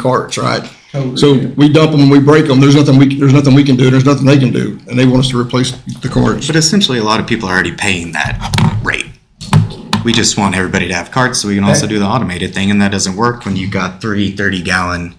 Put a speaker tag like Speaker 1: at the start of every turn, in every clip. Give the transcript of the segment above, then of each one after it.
Speaker 1: carts, right?
Speaker 2: Totally.
Speaker 1: So we dump them and we break them, there's nothing we, there's nothing we can do, there's nothing they can do, and they want us to replace the carts.
Speaker 3: But essentially, a lot of people are already paying that rate. We just want everybody to have carts so we can also do the automated thing, and that doesn't work when you've got three 30 gallon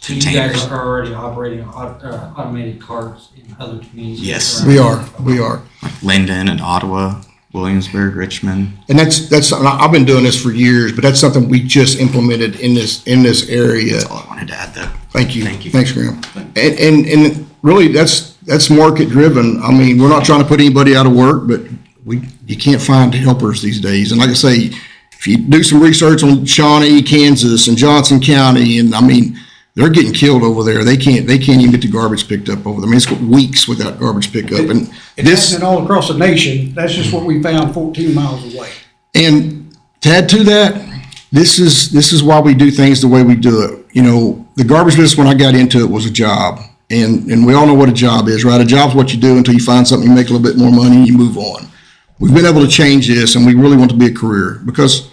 Speaker 4: So you guys
Speaker 3: containers.
Speaker 4: are already operating au- uh, automated carts in other communities?
Speaker 3: Yes.
Speaker 4: around-
Speaker 1: We are, we are.
Speaker 3: Linden and Ottawa, Williamsburg, Richmond.
Speaker 1: And that's, that's, and I- I've been doing this for years, but that's something we just implemented in this, in this area.
Speaker 3: All I wanted to add that.
Speaker 1: Thank you.
Speaker 3: Thank you.
Speaker 1: Thanks, Graham. And, and, and really, that's, that's market driven. I mean, we're not trying to put anybody out of work, but we, you can't find helpers these days. And like I say, if you do some research on Shawnee, Kansas and Johnson County, and I mean, they're getting killed over there. They can't, they can't even get the garbage picked up over there. I mean, it's got weeks without garbage pickup and
Speaker 2: It's
Speaker 1: this.
Speaker 2: happening all across the nation. That's just what we found fourteen miles away.
Speaker 1: And to add to that, this is, this is why we do things the way we do it. You know, the garbage business, when I got into it, was a job. And, and we all know what a job is, right? A job's what you do until you find something, you make a little bit more money, and you move on. We've been able to change this and we really want to be a career because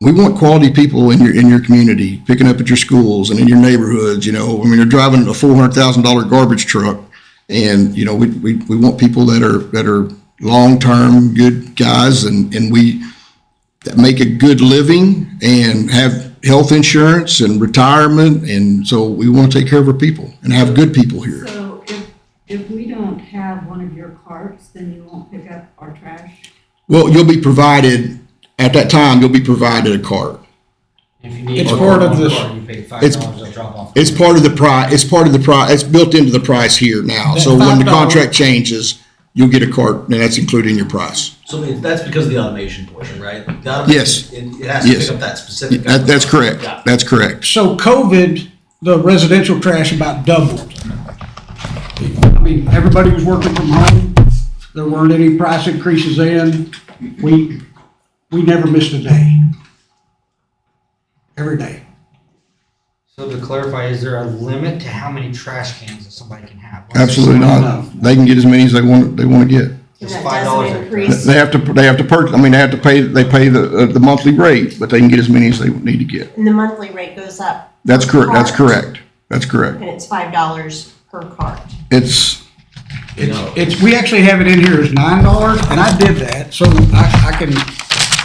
Speaker 1: we want quality people in your, in your community, picking up at your schools and in your neighborhoods, you know. I mean, you're driving a four hundred thousand dollar garbage truck. And, you know, we, we, we want people that are, that are long-term good guys and, and we, that make a good living and have health insurance and retirement. And so we want to take care of our people and have good people here.
Speaker 5: So if, if we don't have one of your carts, then you won't pick up our trash?
Speaker 1: Well, you'll be provided, at that time, you'll be provided a cart.
Speaker 4: If you need
Speaker 2: It's
Speaker 4: one
Speaker 2: part of
Speaker 4: car,
Speaker 2: this-
Speaker 4: You pay five
Speaker 1: it's-
Speaker 4: dollars, they'll drop off.
Speaker 1: It's part of the price, it's part of the price, it's built into the price here now. So when the
Speaker 2: That $5.
Speaker 1: contract changes, you'll get a cart and that's included in your price.
Speaker 6: So it- that's because of the automation portion, right? The automation-
Speaker 1: Yes.
Speaker 6: It, it has to
Speaker 1: Yes.
Speaker 6: pick up that specific.
Speaker 1: That, that's correct.
Speaker 6: Yeah.
Speaker 1: That's correct.
Speaker 2: So COVID, the residential trash about doubled. I mean, everybody was working from home. There weren't any price increases in. We, we never missed a day. Every day.
Speaker 4: So to clarify, is there a limit to how many trash cans that somebody can have? Once
Speaker 1: Absolutely not. They can get as many as they want, they want to get.
Speaker 4: It's
Speaker 7: That
Speaker 4: five
Speaker 7: doesn't
Speaker 4: dollars a-
Speaker 7: increase-
Speaker 1: They have to, they have to purchase, I mean, they have to pay, they pay the, uh, the monthly rate, but they can get as many as they need to get.
Speaker 7: And the monthly rate goes up,
Speaker 1: That's correct, that's
Speaker 7: Cart.
Speaker 1: correct, that's correct.
Speaker 7: and it's five dollars per cart.
Speaker 1: It's,
Speaker 6: You know,
Speaker 2: It's, we actually have it in here as nine dollars, and I did that, so I, I can,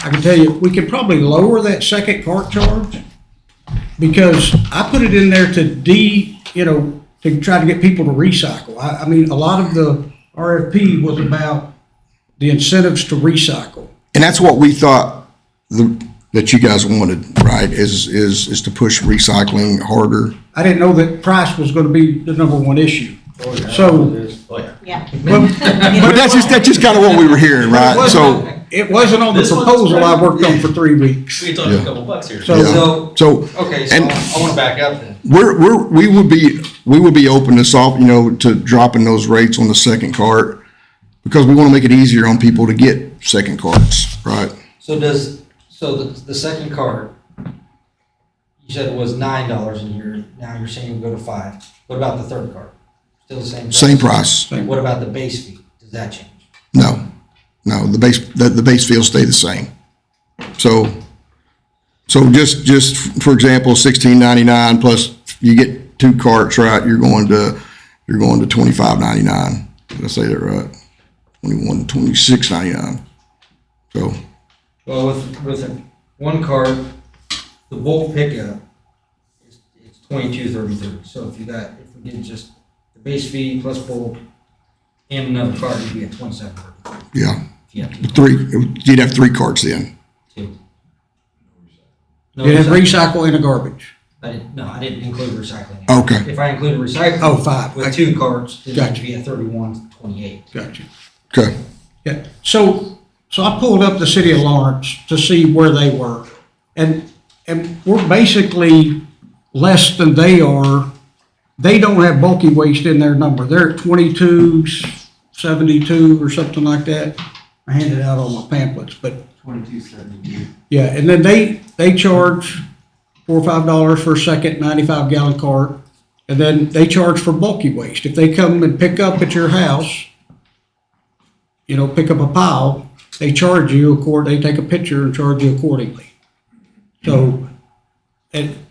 Speaker 2: I can tell you, we could probably lower that second cart charge. Because I put it in there to de, you know, to try to get people to recycle. I, I mean, a lot of the RFP was about the incentives to recycle.
Speaker 1: and that's what we thought the, that you guys wanted, right, is, is, is to push recycling harder.
Speaker 2: I didn't know that price was gonna be the number one issue. So,
Speaker 6: oh yeah.
Speaker 7: Yeah.
Speaker 2: but
Speaker 1: But that's just, that's just kind of what we were hearing, right? So,
Speaker 2: it wasn't on the
Speaker 6: This one's
Speaker 2: proposal I
Speaker 6: right.
Speaker 2: worked on for three weeks.
Speaker 6: We talked
Speaker 1: Yeah.
Speaker 6: a couple bucks here.
Speaker 2: So-
Speaker 4: So,
Speaker 1: so
Speaker 4: okay, so
Speaker 1: And-
Speaker 4: I wanna back up then.
Speaker 1: we're, we're, we would be, we would be open to solve, you know, to dropping those rates on the second cart because we want to make it easier on people to get second carts, right?
Speaker 4: So does, so the, the second cart, you said it was nine dollars a year, now you're saying it would go to five. What about the third cart? Still the same?
Speaker 1: Same price,
Speaker 4: What about the base fee? Does that change?
Speaker 1: no, no, the base, the, the base fees stay the same. So, so just, just for example, sixteen ninety-nine plus you get two carts, right, you're going to, you're going to twenty-five ninety-nine. Did I say that right? Twenty-one, twenty-six ninety-nine. So,
Speaker 4: Well, with, with a- one cart, the bulk pickup, it's, it's twenty-two thirty-three. So if you got, if we did just the base fee plus bulk and another cart, you'd be at twenty-seven thirty-three.
Speaker 1: yeah,
Speaker 4: If you have
Speaker 1: three, you'd have three carts then.
Speaker 4: two. No
Speaker 2: You have
Speaker 4: recycling.
Speaker 2: recycle and a garbage.
Speaker 4: I didn't, no, I didn't include recycling.
Speaker 1: Okay,
Speaker 4: If I include recycling.
Speaker 2: Oh, five.
Speaker 4: With two carts, then it'd
Speaker 2: Gotcha.
Speaker 4: be at thirty-one twenty-eight.
Speaker 2: Gotcha.
Speaker 1: okay.
Speaker 2: Yeah, so, so I pulled up the city of Lawrence to see where they were. And, and we're basically less than they are. They don't have bulky waste in their number. They're at twenty-two, seventy-two or something like that. I handed out all my pamphlets, but,
Speaker 4: Twenty-two seventy-two.
Speaker 2: yeah, and then they, they charge four or five dollars for a second ninety-five gallon cart. And then they charge for bulky waste. If they come and pick up at your house, you know, pick up a pile, they charge you accord, they take a picture and charge you accordingly. So, and